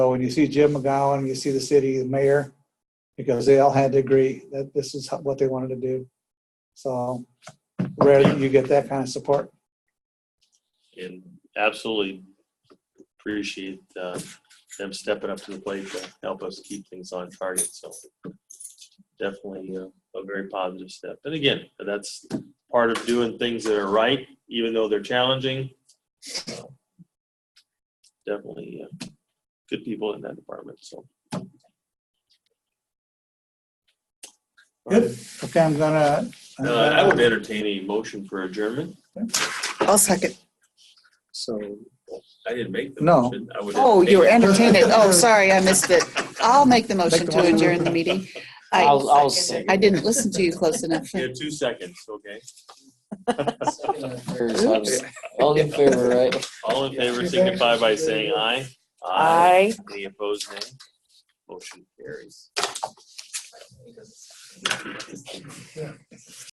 So when you see Jim McGowan, you see the city, the mayor, because they all had to agree that this is what they wanted to do. So rare that you get that kind of support. and absolutely appreciate uh, them stepping up to the plate to help us keep things on target. So definitely uh, a very positive step. And again, that's part of doing things that are right, even though they're challenging. Uh, Definitely uh, good people in that department. So. Good. Okay, I'm gonna. I'm Uh, I would gonna- entertain a motion for adjournment. I'll second. So I didn't make the No. motion. I would Oh, you were entertain it. entertained. Oh, sorry, I missed it. I'll make the motion to adjourn the meeting. I, I'll, I'll second. I didn't listen to you close enough. You have two seconds, okay? All in favor, right? All in favor signify by saying aye. Aye. Any opposed, nay? Motion carries.